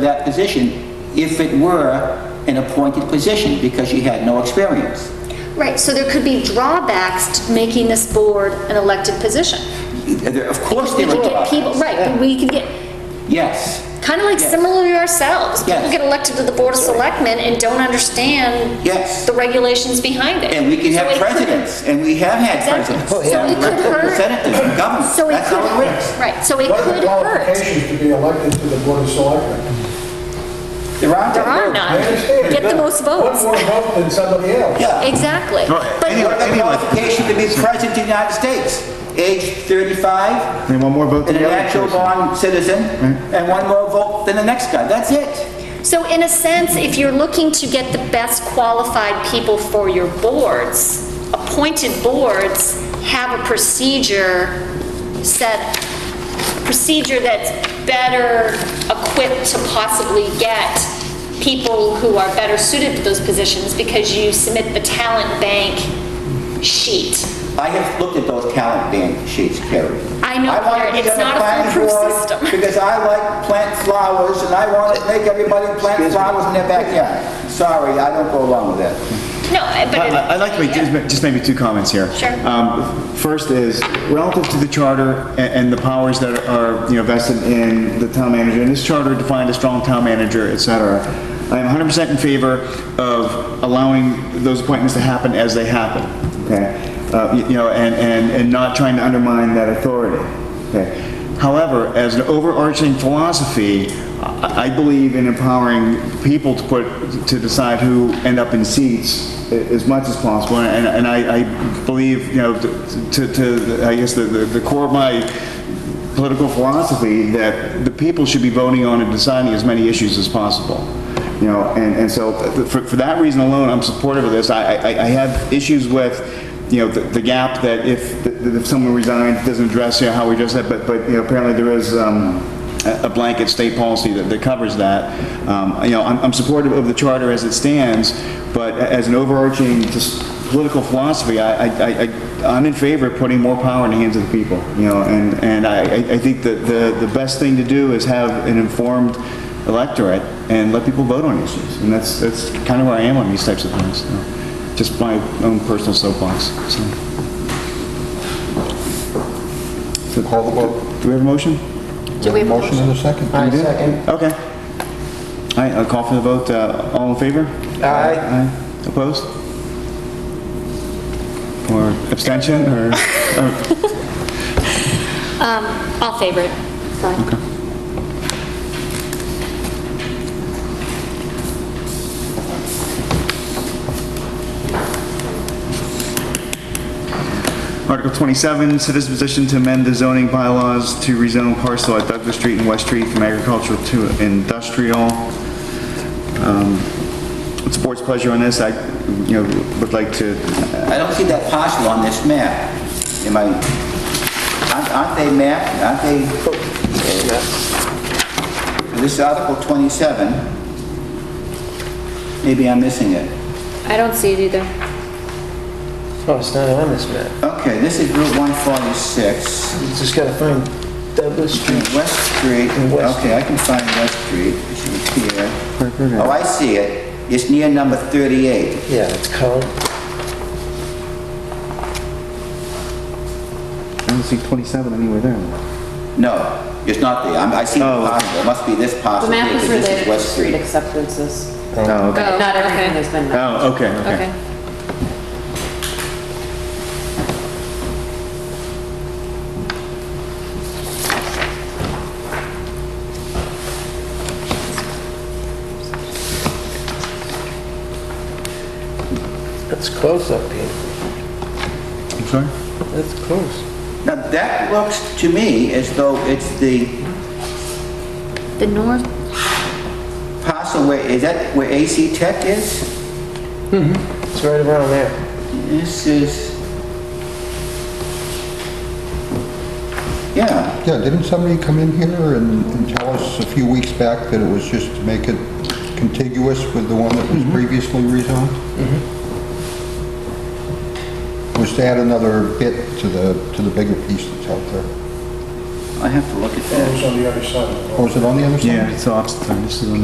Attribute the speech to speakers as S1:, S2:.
S1: that position if it were an appointed position because she had no experience.
S2: Right, so there could be drawbacks to making this board an elected position.
S1: There- Of course
S2: We
S1: there
S2: could
S1: were
S2: get people,
S1: drawbacks.
S2: right, but we could get,
S1: Yes,
S2: kind of like
S1: Yes.
S2: similar to ourselves. People
S1: Yes.
S2: get elected to the Board of Selectmen and don't understand
S1: Yes.
S2: the regulations behind it.
S1: and we can
S2: So it
S1: have
S2: could-
S1: presidents, and we have had
S2: Exactly.
S1: presidents.
S2: So it could hurt-
S1: Senators, and governors,
S2: So it
S1: that's
S2: could,
S1: how it works.
S2: right, so it
S3: What are
S2: could
S3: the
S2: hurt.
S3: qualifications to be elected to the Board of Selectmen?
S1: There aren't.
S2: There are
S1: no.
S2: none.
S3: I understand.
S2: Get the most votes.
S3: One more vote than somebody else.
S1: Yeah.
S2: Exactly.
S1: Any
S2: But,
S1: other qualification to be president of the United States, age 35.
S4: And one more vote than
S1: And
S4: the
S1: a
S4: other
S1: natural
S4: person.
S1: born citizen, and one more vote than the next guy, that's it.
S2: so in a sense, if you're looking to get the best qualified people for your boards, appointed boards have a procedure set, procedure that's better equipped to possibly get people who are better suited for those positions because you submit the talent bank sheet.
S1: I have looked at those calendar bank sheets, Carrie.
S2: I know,
S1: wanna
S2: Larry,
S1: be
S2: it's
S1: on the
S2: not a
S1: planning
S2: foolproof
S1: board
S2: system.
S1: Because I like plant flowers, and I want to make everybody plant flowers in their backyard. Sorry, I don't go along with that.
S2: No, but.
S4: I-
S2: it-
S4: I- I'd like to make, just ma- just maybe two comments here.
S2: Sure.
S4: Um, First is, relative to the charter a- and the powers that are, you know, vested in the town manager, and this charter defined a strong town manager, et cetera, I am 100% in favor of allowing those appointments to happen as they happen, okay? Uh, y- You know, and, and, and not trying to undermine that authority, okay? However, as an overarching philosophy, I I believe in empowering people to put, to decide who end up in seats a- as much as possible, and, and I, I believe, you know, to, to, I guess the, the the core of my political philosophy, that the people should be voting on and deciding as many issues as possible. You know, and, and so uh, for, for that reason alone, I'm supportive of this. I, I, I have issues with, you know, the, the gap that if, that if someone resigns, it doesn't address, you know, how we address that, but, but, you know, apparently there is, um, a a blanket state policy that, that covers that. Um, you know, I'm, I'm supportive of the charter as it stands, but a- as an overarching just political philosophy, I, I, I- I, I'm in favor of putting more power in the hands of the people, you know, and, and I, I I think that the, the best thing to do is have an informed electorate and let people vote on issues. And that's, that's kind of where I am on these types of things. so. Just my own personal soapbox, so. So,
S5: Call the vote.
S4: Do we have a motion?
S2: Do we have a
S5: Motion in a second.
S3: I second.
S4: Okay. All right, I'll call for the vote. Uh, All in favor?
S3: Aye.
S4: Aye. Opposed? Or abstention, or? uh,
S2: Um, I'll favor it. Sorry.
S4: Article 27, citizen petition to amend the zoning bylaws to rezone parcel at Douglas Street and West Street from agricultural to industrial. Um, What's the board's pleasure on this? I, you know, would like to,
S1: I don't see that parcel on this map. Am I, aren't- aren't they mapped, aren't they? This is Article 27. Maybe I'm missing it.
S6: I don't see it either.
S7: Oh, it's not on this map.
S1: Okay, this is Route 146.
S7: You just gotta find Douglas Street.
S1: West Street,
S7: And West
S1: okay, I can find West Street, it's here. Oh, I see it, it's near number 38.
S7: Yeah, it's called.
S4: I don't see 27 anywhere there.
S1: No, it's not there, I'm- I see the
S4: Oh, okay.
S1: parcel, it must be this
S6: The
S1: parcel.
S6: map
S1: here,
S6: is
S1: 'cause this
S6: related to
S1: West
S6: street acceptances.
S4: Oh, okay.
S6: but Not everything has been mapped.
S4: Oh, okay, okay.
S6: Okay.
S7: That's close up here.
S4: I'm sorry?
S7: That's close.
S1: Now, that looks to me as though it's the
S2: The north,
S1: parcel where, is that where AC Tech is?
S7: It's right around there.
S1: This is... Yeah.
S5: Yeah, didn't somebody come in here and and tell us a few weeks back that it was just to make it contiguous with the one that was previously rezoned? Was to add another bit to the, to the bigger piece that's out there.
S8: I have to look at that.
S9: It's on the other side of the road.
S3: Oh, is it on the other side?
S4: it's opposite, this is on